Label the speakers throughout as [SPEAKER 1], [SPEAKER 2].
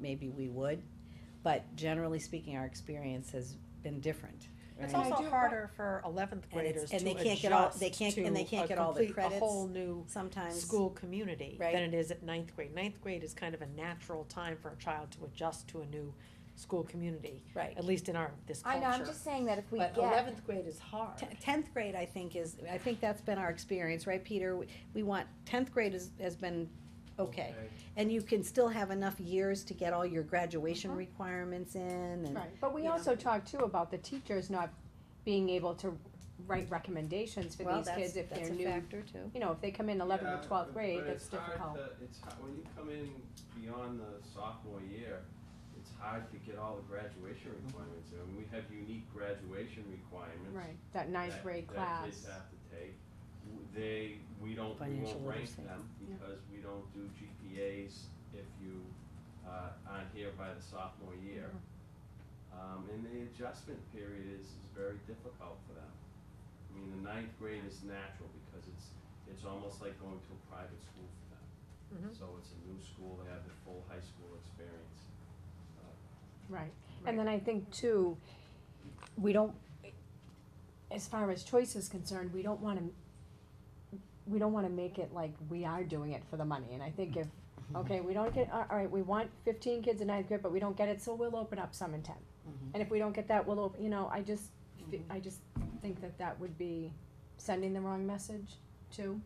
[SPEAKER 1] maybe we would. But generally speaking, our experience has been different.
[SPEAKER 2] It's
[SPEAKER 1] right?
[SPEAKER 2] also
[SPEAKER 3] I do-
[SPEAKER 2] harder for eleventh
[SPEAKER 1] And it's-
[SPEAKER 2] graders to
[SPEAKER 1] and
[SPEAKER 2] adjust
[SPEAKER 1] they
[SPEAKER 2] to
[SPEAKER 1] can't get all- they can't- and they can't
[SPEAKER 2] a
[SPEAKER 1] get all the
[SPEAKER 2] complete, a
[SPEAKER 1] credits.
[SPEAKER 2] whole new
[SPEAKER 1] Sometimes.
[SPEAKER 2] school community
[SPEAKER 1] Right.
[SPEAKER 2] than it is at ninth grade. Ninth grade is kind of a natural time for a child to adjust to a new school community,
[SPEAKER 1] Right.
[SPEAKER 2] at least in our, this
[SPEAKER 3] I
[SPEAKER 2] culture.
[SPEAKER 3] know, I'm just saying that if we
[SPEAKER 2] But
[SPEAKER 3] get,
[SPEAKER 2] eleventh grade is hard.
[SPEAKER 1] Te- Tenth grade, I think is, I think that's been our experience, right, Peter? We- We want, tenth grade has, has been okay. And you can still have enough years to get all your graduation
[SPEAKER 3] Mhm.
[SPEAKER 1] requirements in and,
[SPEAKER 4] Right, but we
[SPEAKER 1] you know.
[SPEAKER 4] also talked too about the teachers not being able to write recommendations for
[SPEAKER 1] well,
[SPEAKER 4] these
[SPEAKER 1] that's,
[SPEAKER 4] kids if
[SPEAKER 1] that's
[SPEAKER 4] they're
[SPEAKER 1] a
[SPEAKER 4] new.
[SPEAKER 1] factor too.
[SPEAKER 4] You know, if they come in eleventh
[SPEAKER 5] Yeah,
[SPEAKER 4] or twelfth
[SPEAKER 5] but-
[SPEAKER 4] grade,
[SPEAKER 5] but
[SPEAKER 4] that's
[SPEAKER 5] it's hard
[SPEAKER 4] difficult.
[SPEAKER 5] to- It's, hard- when you come in beyond the sophomore year, it's hard to get all the graduation requirements, I mean, we have unique graduation requirements.
[SPEAKER 4] Right, that ninth
[SPEAKER 5] that-
[SPEAKER 4] grade
[SPEAKER 5] That
[SPEAKER 4] class.
[SPEAKER 5] kids have to take, W- they, we don't, we
[SPEAKER 1] Financial
[SPEAKER 5] won't rank
[SPEAKER 1] literacy.
[SPEAKER 5] them,
[SPEAKER 4] Yeah.
[SPEAKER 5] because we don't do GPAs if you, uh, aren't here by the sophomore year.
[SPEAKER 4] Mm-hmm.
[SPEAKER 5] Um, and the adjustment period is, is very difficult for them. I mean, the ninth grade is natural, because it's, it's almost like going to a private school for them.
[SPEAKER 4] Mm-hmm.
[SPEAKER 2] Mhm.
[SPEAKER 5] So it's a new school, they have the full high school experience.
[SPEAKER 4] Right,
[SPEAKER 2] Right.
[SPEAKER 4] and then I think too, we don't, as far as choice is concerned, we don't wanna, we don't wanna make it like we are doing it for the money, and I think if,
[SPEAKER 1] Mm-hmm.
[SPEAKER 4] okay, we don't get, all all right, we want fifteen kids in ninth grade, but we don't get it, so we'll open up some in tenth.
[SPEAKER 1] Mhm.
[SPEAKER 4] And if we don't get that, we'll, op- you know, I just,
[SPEAKER 1] Mm-hmm.
[SPEAKER 4] fe- I just think that that would be sending the wrong message too.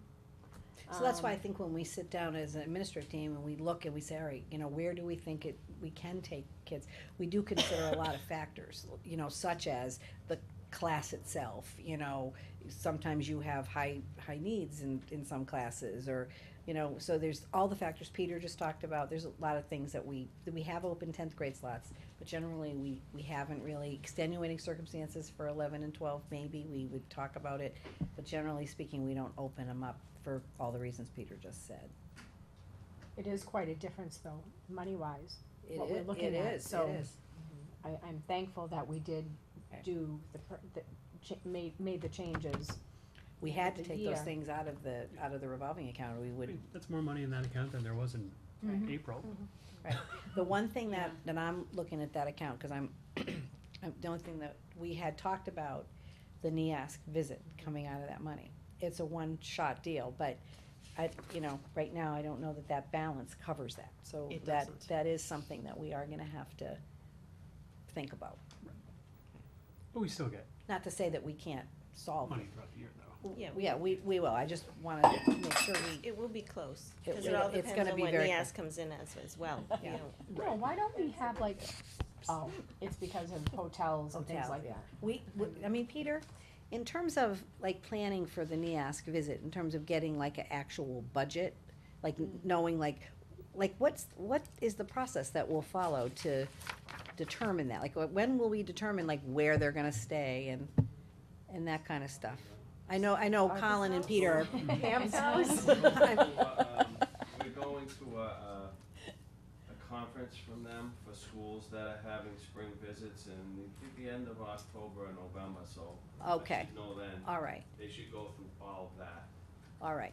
[SPEAKER 1] So that's why I
[SPEAKER 4] Um,
[SPEAKER 1] think when we sit down as an administrative team and we look and we say, all right, you know, where do we think it, we can take kids? We do consider a lot of factors, you know, such as the class itself, you know, sometimes you have high, high needs in, in some classes or, you know, so there's all the factors Peter just talked about, there's a lot of things that we, that we have open tenth grade slots, but generally, we, we haven't really, extenuating circumstances for eleven and twelve, maybe, we would talk about it, but generally speaking, we don't open them up for all the reasons Peter just said.
[SPEAKER 4] It is quite a difference though, money wise.
[SPEAKER 1] It
[SPEAKER 4] What we're
[SPEAKER 1] i-
[SPEAKER 4] looking at,
[SPEAKER 1] It is,
[SPEAKER 4] so-
[SPEAKER 1] it is.
[SPEAKER 4] I, I'm thankful that we did
[SPEAKER 1] Okay.
[SPEAKER 4] do the, per- the, cha- made, made the changes.
[SPEAKER 1] We had to
[SPEAKER 4] The
[SPEAKER 1] take those
[SPEAKER 4] year.
[SPEAKER 1] things out of the, out of the revolving account, or we would,
[SPEAKER 6] That's more money in that account than there was in April.
[SPEAKER 1] the one thing that, that I'm looking at that account, cause I'm, I'm- the only thing that, we had talked about the E NIASC visit coming out of that money. It's a one-shot deal, but I, you know, right now, I don't know that that balance covers that, so
[SPEAKER 2] It
[SPEAKER 1] that,
[SPEAKER 2] doesn't.
[SPEAKER 1] that is something that we are gonna have to think about.
[SPEAKER 6] But we still get
[SPEAKER 1] Not to say that we can't solve it.
[SPEAKER 6] money throughout the year, though.
[SPEAKER 1] Yeah, yeah, we, we will, I just wanna make sure we,
[SPEAKER 7] It will be close,
[SPEAKER 1] It
[SPEAKER 7] because
[SPEAKER 1] will.
[SPEAKER 7] it all
[SPEAKER 1] It's
[SPEAKER 7] depends
[SPEAKER 1] gonna
[SPEAKER 7] on
[SPEAKER 1] be
[SPEAKER 7] what E
[SPEAKER 1] very
[SPEAKER 7] NIAS comes in as, as well. you
[SPEAKER 1] Yeah.
[SPEAKER 7] know.
[SPEAKER 4] No, why don't we have like, oh, it's because of hotels and things
[SPEAKER 1] Hotels,
[SPEAKER 4] like
[SPEAKER 1] yeah.
[SPEAKER 4] that.
[SPEAKER 1] we, we- I mean, Peter, in terms of like planning for the NIASC visit, in terms of getting like an actual budget, like n-
[SPEAKER 7] Mm.
[SPEAKER 1] knowing like, like what's, what is the process that we'll follow to determine that? Like, wh- when will we determine like where they're gonna stay and, and that kinda stuff? I know, I know
[SPEAKER 4] Our
[SPEAKER 1] Colin and Peter are
[SPEAKER 4] Oh. Pam's
[SPEAKER 1] house.
[SPEAKER 5] We're going to, uh, um, We're going to a, a, a conference from them for schools that are having spring visits in the, the end of October and November, so. I
[SPEAKER 1] Okay.
[SPEAKER 5] should Know then,
[SPEAKER 1] All right,
[SPEAKER 5] they should go through all of that.
[SPEAKER 1] all right.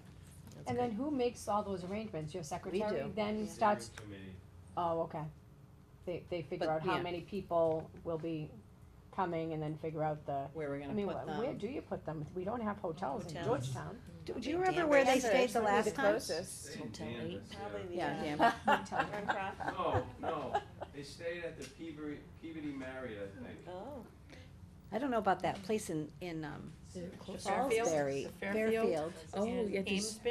[SPEAKER 4] And then who makes all those arrangements? Your secretary
[SPEAKER 1] do.
[SPEAKER 4] then starts,
[SPEAKER 5] Committee.
[SPEAKER 4] oh, okay. They, they figure
[SPEAKER 1] But,
[SPEAKER 4] out how
[SPEAKER 1] yeah.
[SPEAKER 4] many people will be coming and then figure out the,
[SPEAKER 1] Where we're
[SPEAKER 4] I
[SPEAKER 1] gonna
[SPEAKER 4] mean,
[SPEAKER 1] put
[SPEAKER 4] wh- where
[SPEAKER 1] them.
[SPEAKER 4] do you put them? We don't have hotels in
[SPEAKER 7] Hotels.
[SPEAKER 4] Georgetown.
[SPEAKER 1] Do do you remember where they
[SPEAKER 7] Danvers.
[SPEAKER 1] stayed the last time?
[SPEAKER 5] Stay in Danvers, yeah.
[SPEAKER 7] Probably the,
[SPEAKER 1] Yeah,
[SPEAKER 7] uh,
[SPEAKER 1] Danvers.
[SPEAKER 4] Hotel.
[SPEAKER 7] Run Croft.
[SPEAKER 5] No, no, they stayed at the Peabody, Peabody Marriott, I think.
[SPEAKER 7] Oh,
[SPEAKER 1] I don't know about that place in, in, um,
[SPEAKER 2] Fairfield?
[SPEAKER 1] Salisbury,
[SPEAKER 2] The
[SPEAKER 1] Fairfield,
[SPEAKER 2] Fairfield? Oh, yeah,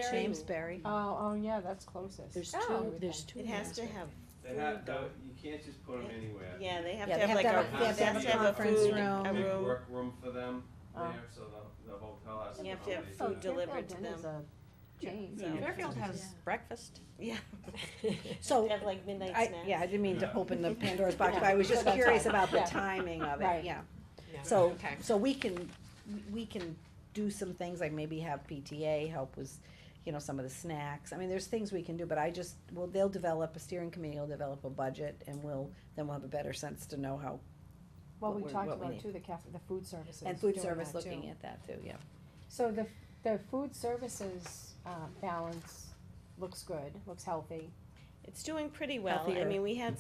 [SPEAKER 1] Amesbury.
[SPEAKER 4] Oh, oh, yeah, that's closest.
[SPEAKER 3] There's
[SPEAKER 4] Oh,
[SPEAKER 3] two, there's two.
[SPEAKER 7] it has to have,
[SPEAKER 5] They have, to- you can't just put them anywhere.
[SPEAKER 7] yeah, they have
[SPEAKER 1] Yeah,
[SPEAKER 7] to have like a,
[SPEAKER 1] they have to have a
[SPEAKER 7] they have to have a
[SPEAKER 1] conference
[SPEAKER 7] food,
[SPEAKER 1] room.
[SPEAKER 7] a
[SPEAKER 5] Big
[SPEAKER 7] room.
[SPEAKER 5] work room for them
[SPEAKER 4] Oh.
[SPEAKER 5] there, so the, the hotel has to.
[SPEAKER 7] You have to have
[SPEAKER 5] accommodate
[SPEAKER 4] Oh,
[SPEAKER 5] that.
[SPEAKER 7] food delivered to
[SPEAKER 4] Fairfield Inn is
[SPEAKER 7] them.
[SPEAKER 4] a chain, so-
[SPEAKER 2] Fairfield has breakfast.
[SPEAKER 7] Yeah.
[SPEAKER 1] So,
[SPEAKER 7] Have like midnight
[SPEAKER 1] I,
[SPEAKER 7] snacks.
[SPEAKER 1] Oh, yeah, I didn't mean to
[SPEAKER 5] Yeah.
[SPEAKER 1] open the Pandora's box, but I was just
[SPEAKER 4] Yeah.
[SPEAKER 1] curious about the
[SPEAKER 4] Yeah.
[SPEAKER 1] timing of it,
[SPEAKER 4] Right.
[SPEAKER 1] yeah.
[SPEAKER 2] Yeah.
[SPEAKER 1] So,
[SPEAKER 2] Okay.
[SPEAKER 1] so we can, we can do some things, like maybe have PTA help with, you know, some of the snacks. I mean, there's things we can do, but I just, well, they'll develop, a steering committee will develop a budget, and we'll, then we'll have a better sense to know how,
[SPEAKER 4] Well,
[SPEAKER 1] what
[SPEAKER 4] we
[SPEAKER 1] we're-
[SPEAKER 4] talked
[SPEAKER 1] what we
[SPEAKER 4] about
[SPEAKER 1] need.
[SPEAKER 4] too, the cafe, the food services.
[SPEAKER 1] and food
[SPEAKER 4] doing
[SPEAKER 1] service
[SPEAKER 4] that, too.
[SPEAKER 1] looking at that too, yeah.
[SPEAKER 4] So the, the food services, uh, balance looks good, looks healthy.
[SPEAKER 7] It's doing pretty well. I
[SPEAKER 1] Healthier.
[SPEAKER 7] mean, we had